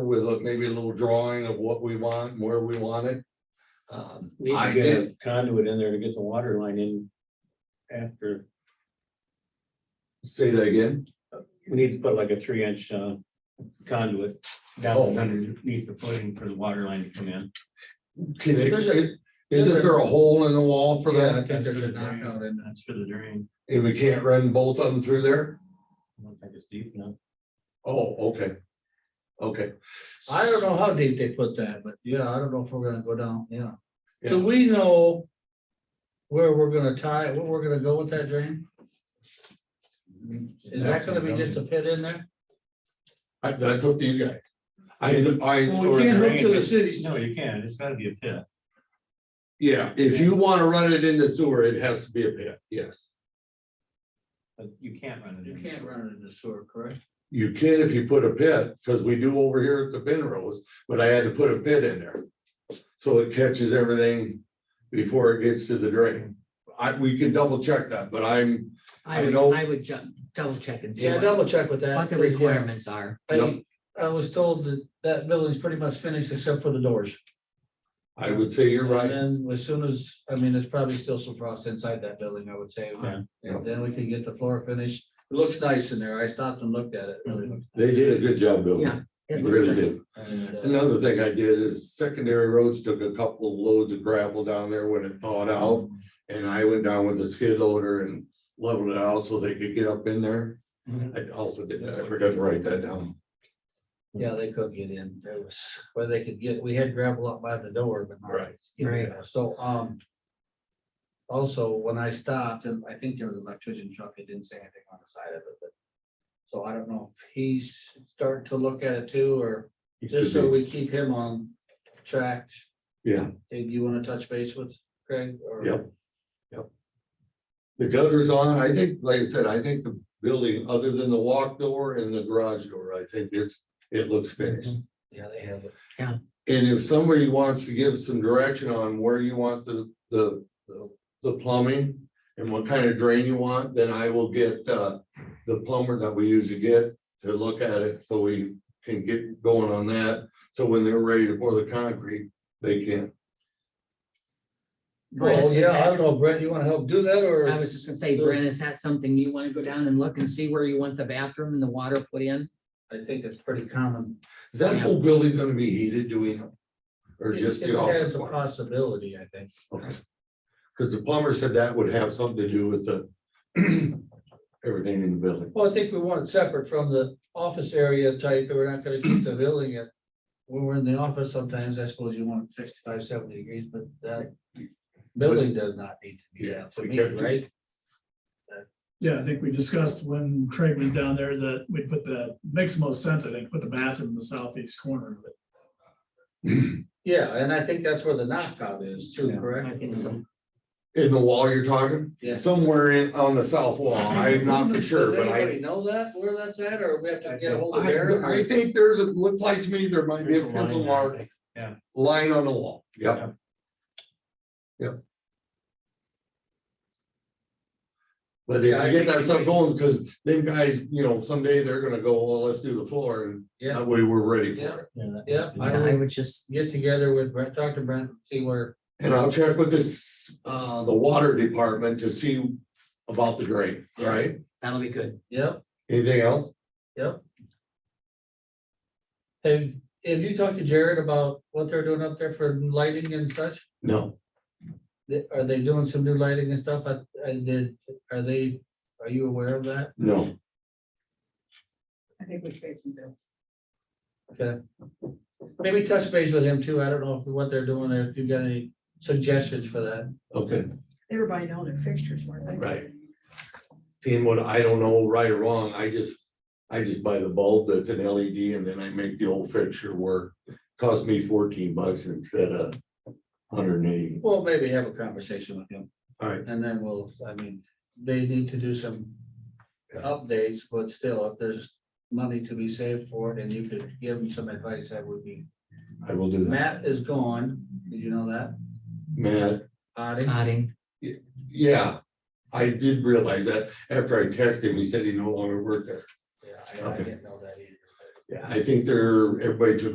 with a- maybe a little drawing of what we want, and where we want it. Um, We I need to get did, a conduit in there to get the water line in. After, say that again, we need to put like a three inch uh, conduit Oh. down underneath the footing for the water line to come in. can it, There's a- isn't there a hole in the wall for Yeah, I that? think That's there's for a the drain. knockout in. That's for the drain. And we can't run both of them through there? I don't think it's deep enough. Oh, okay. Okay. I don't know how deep they put that, but yeah, I don't know if we're gonna go down, yeah. Do Yeah. we know where we're gonna tie, where we're gonna go with that drain? Is that gonna be just a pit in there? I- That's up to you guys. I, I. Well, Or we the can't hook drain, to the but- cities. No, you can't. It's gotta be a pit. Yeah, if you want to run it in the sewer, it has to be a pit, yes. But you can't run it You in. can't run it in the sewer, correct? You can if you put a pit, because we do over here at the Penrose, but I had to put a pit in there. So it catches everything before it gets to the drain. I, we can double check that, but I'm, I I would, know- I would ju- double check and see Yeah, what double check with that. what the 'cause, yeah, requirements are. I, I was told that that building's pretty much finished except for the doors. I would say you're right. And then as soon as, I mean, there's probably still some frost inside that building, I would say. Yeah. Yeah. Then we can get the floor finished. It looks nice in there. I stopped and looked at it. It really looks They did a good job building. Yeah, They It looks Really nice. did. And, uh, Another thing I did is secondary roads took a couple loads of gravel down there when it thawed out. And I went down with a skid loader and leveled it out so they could get up in there. Mhm. I also did that. I forgot to write that down. Yeah, they couldn't get in. There was where they could get, we had gravel up by the door, but. not- Right. Right. Yeah, So, um. Also, when I stopped, and I think there was an electrician truck, it didn't say anything on the side of it, but. So I don't know if he's starting to look at it too, or It just could so be. we keep him on track. Yeah. Hey, do you want to touch base with Craig or? Yep. The gutters on, I think, like I said, I think the building, other than the walk door and the garage door, I think it's, it looks finished. Yeah, they have it. And if somebody wants to give some direction on where you want the, the, the- the plumbing and what kind of drain you want, then I will get, uh, the plumber that we usually get to look at it, so we can get going on that. So when they're ready to pour the concrete, they can. Brent, Well, is yeah, I don't that- know, Brent, you want to help do that or? I was just gonna say, Sure. Brent, is that something you wanna go down and look and see where you want the bathroom and the water put in? I think it's pretty common. Is that whole building gonna be heated, do we know? Or just It's- the it's- office? It's a part? possibility, I think. Because the plumber said that would have something to do with the everything in the building. Well, I think we want it separate from the office area type, and we're not gonna keep the building it. When we're in the office, sometimes I suppose you want 65, 70 degrees, but that building does not need to be Yeah, that to we me, kept it. right? Yeah, I think we discussed when Craig was down there that we put the, makes the most sense, I think, put the bathroom in the southeast corner of it. Yeah, and I think that's where the knockout is too, correct? I think so. In the wall you're talking? Yeah. Somewhere in, on the south wall. I'm not for sure, Does but I, anybody know that, where that's at, or we have to get a hold of Eric? I, I think there's, a looks like to me, there might be There's a a line pencil there, I mark, think. Yeah. line on the wall. Yep. But if Yeah, you I get think that we stuff should- going, because them guys, you know, someday they're gonna go, well, let's do the floor and Yeah, that way we're ready for yeah, it. Yeah, that yeah, must be- I Yeah, I would would just, get together with Brent, Dr. Brent, see where, And I'll check with this, uh, the water department to see about the drain, all right? that'll be good. yep. Anything else? Have, have you talked to Jared about what they're doing up there for lighting and such? No, They- Are they doing some new lighting and stuff? I, I did, are they, are you aware of that? no. I think we paid some bills. Okay. Maybe touch base with him too. I don't know if what they're doing or if you've got any suggestions for that. Okay. They were buying all their fixtures, weren't they? Right. Seeing what I don't know right or wrong, I just, I just buy the bulb that's an LED and then I make the old fixture work. Cost me fourteen bucks instead of hundred and eighty. Well, maybe have a conversation with him All right, and then we'll, I mean, they need to do some updates, but still, if there's money to be saved for it and you could give them some advice, that would be. I will do that. Matt is gone. Did you know that? Matt, Addie? Uh, Nodding. yeah, I did realize that after I texted him, he said he no longer worked there. Yeah, I I Okay. didn't know that either. I think they're, everybody took